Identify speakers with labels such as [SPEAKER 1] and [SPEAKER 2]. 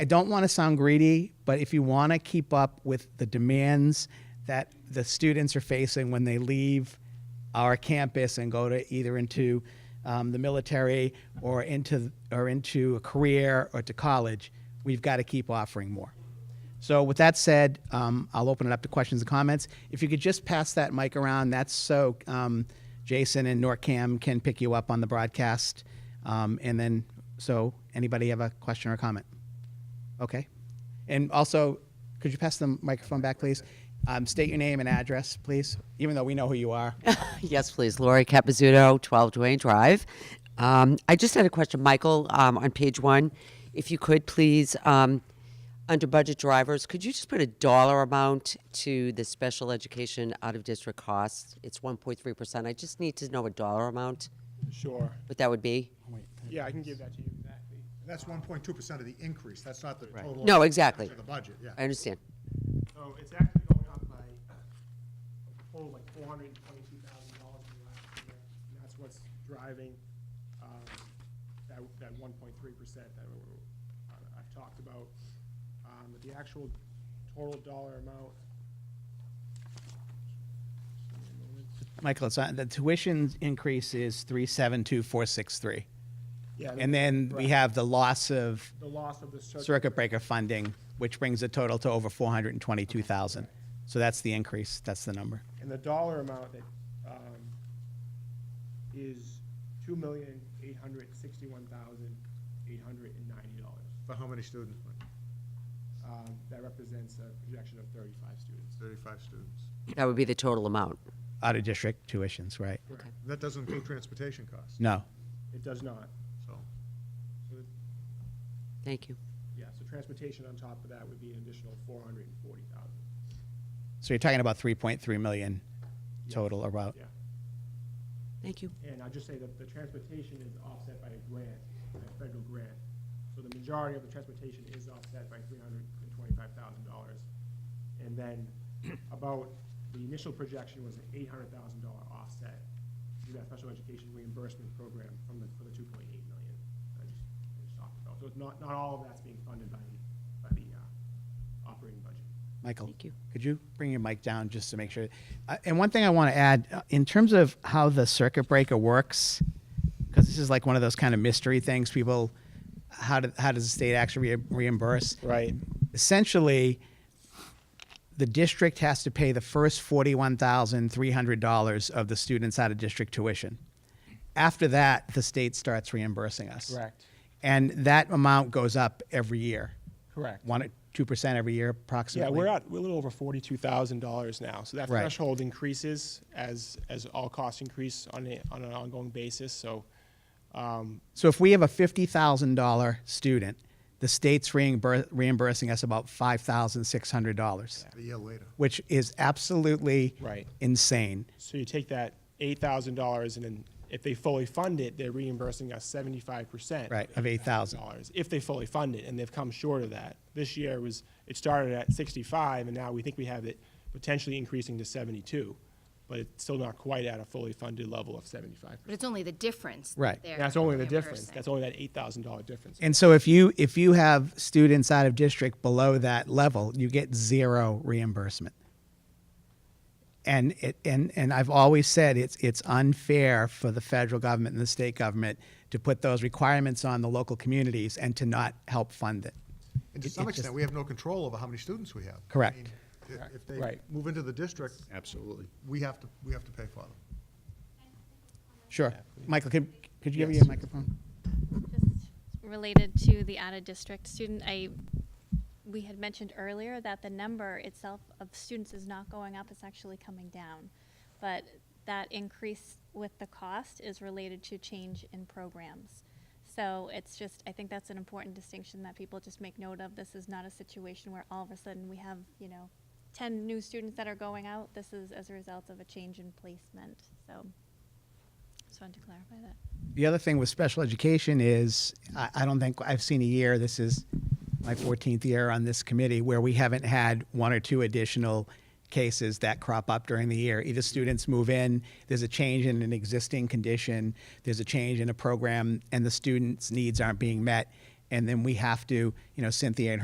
[SPEAKER 1] I don't want to sound greedy, but if you want to keep up with the demands that the students are facing when they leave our campus and go to either into um, the military or into or into a career or to college, we've got to keep offering more. So with that said, um, I'll open it up to questions and comments. If you could just pass that mic around, that's so um, Jason and NorCam can pick you up on the broadcast. Um, and then, so anybody have a question or comment? Okay. And also, could you pass the microphone back, please? Um, state your name and address, please, even though we know who you are.
[SPEAKER 2] Yes, please. Lori Capizzuto, 12 Duane Drive. Um, I just had a question, Michael, um, on page one. If you could, please, um, under budget drivers, could you just put a dollar amount to the special education out of district costs? It's 1.3%. I just need to know a dollar amount,
[SPEAKER 3] Sure.
[SPEAKER 2] what that would be.
[SPEAKER 3] Yeah, I can give that to you.
[SPEAKER 4] And That's one point two percent of the increase, that's not the total.
[SPEAKER 2] No, exactly.
[SPEAKER 4] Of the budget, yeah.
[SPEAKER 2] I understand.
[SPEAKER 3] So it's actually going up by, oh, like four hundred and twenty-two thousand dollars from last year. And that's what's driving, um, that, that one point three percent that we- I- I've talked about. Um, but the actual total dollar amount. Just give me a moment.
[SPEAKER 1] Michael, it's not, the tuition increase is 372463.
[SPEAKER 3] Yeah,
[SPEAKER 1] And then we
[SPEAKER 3] Right.
[SPEAKER 1] have the loss of
[SPEAKER 3] The loss of the circuit.
[SPEAKER 1] circuit breaker funding, which brings the total to over 422,000. So that's the increase, that's the number.
[SPEAKER 3] And the dollar amount that, um, is two million, eight hundred sixty-one thousand, eight hundred and ninety dollars.
[SPEAKER 4] For how many students? Mike?
[SPEAKER 3] Um, that represents a projection of thirty-five students.
[SPEAKER 4] Thirty-five students.
[SPEAKER 2] That would be the total amount.
[SPEAKER 1] Out of district tuitions, right?
[SPEAKER 4] That doesn't include transportation costs,
[SPEAKER 1] No.
[SPEAKER 3] It does not.
[SPEAKER 4] so.
[SPEAKER 3] So it-
[SPEAKER 2] Thank you.
[SPEAKER 3] Yeah, so transportation on top of that would be an additional four hundred and forty thousand,
[SPEAKER 1] So you're talking about 3.3 million total about.
[SPEAKER 3] yeah.
[SPEAKER 2] Thank you.
[SPEAKER 3] And I'll just say that the transportation is offset by a grant, a federal grant. So the majority of the transportation is offset by three hundred and twenty-five thousand dollars. And then about, the initial projection was an eight hundred thousand dollar offset to that special education reimbursement program from the, for the two point eight million. that I just- I just talked about. So it's not, not all of that's being funded by the, by the, uh, operating budget.
[SPEAKER 1] Michael,
[SPEAKER 2] Thank you.
[SPEAKER 1] could you bring your mic down just to make sure? Uh, and one thing I want to add uh, in terms of how the circuit breaker works, because this is like one of those kind of mystery things people, how, do, how does the state actually re- reimburse?
[SPEAKER 3] Right.
[SPEAKER 1] Essentially, the district has to pay the first $41,300 of the students out of district tuition. After that, the state starts reimbursing us.
[SPEAKER 3] Correct.
[SPEAKER 1] And that amount goes up every year.
[SPEAKER 3] Correct.
[SPEAKER 1] One, 2% every year
[SPEAKER 3] Yeah,
[SPEAKER 1] approximately.
[SPEAKER 3] we're at, we're a little over forty-two thousand dollars now, so that
[SPEAKER 1] Right.
[SPEAKER 3] threshold increases as, as all costs increase on a, on an ongoing basis, so, um,
[SPEAKER 1] So if we have a fifty thousand dollar student, the state's reimbur- reimbursing us about five thousand six hundred dollars,
[SPEAKER 4] A year later.
[SPEAKER 1] which is absolutely
[SPEAKER 3] Right.
[SPEAKER 1] insane.
[SPEAKER 3] so you take that eight thousand dollars and then if they fully fund it, they're reimbursing us seventy-five percent.
[SPEAKER 1] Right, of $8,000.
[SPEAKER 3] Dollars, if they fully fund it, and they've come short of that. This year was, it started at sixty-five, and now we think we have it potentially increasing to seventy-two, but it's still not quite at a fully funded level of seventy-five
[SPEAKER 5] But it's only the difference.
[SPEAKER 1] Right.
[SPEAKER 5] that they're
[SPEAKER 3] That's only the difference.
[SPEAKER 5] reimbursing.
[SPEAKER 3] That's only that eight thousand dollar difference.
[SPEAKER 1] And so if you if you have students out of district below that level, you get zero reimbursement. And it and and I've always said it's it's unfair for the federal government and the state government to put those requirements on the local communities and to not help fund it.
[SPEAKER 4] And to
[SPEAKER 1] It-
[SPEAKER 4] some
[SPEAKER 1] it
[SPEAKER 4] extent,
[SPEAKER 1] just-
[SPEAKER 4] we have no control over how many students we have. I
[SPEAKER 1] Correct.
[SPEAKER 4] mean, if- If they
[SPEAKER 3] Right.
[SPEAKER 4] move into the district. Absolutely. We have to, we have to pay for them.
[SPEAKER 1] Sure. Michael, could, could you give me
[SPEAKER 3] Yes.
[SPEAKER 1] a microphone?
[SPEAKER 6] Just related to the out-of-district student, I, we had mentioned earlier that the number itself of students is not going up, it's actually coming down. But that increase with the cost is related to change in programs. So it's just, I think that's an important distinction that people just make note of. This is not a situation where all of a sudden we have, you know, ten new students that are going out. This is as a result of a change in placement, so. Just wanted to clarify that.
[SPEAKER 1] The other thing with special education is, I, I don't think I've seen a year, this is my 14th year on this committee, where we haven't had one or two additional cases that crop up during the year. Either students move in, there's a change in an existing condition, there's a change in a program, and the students' needs aren't being met, and then we have to, you know, Cynthia and her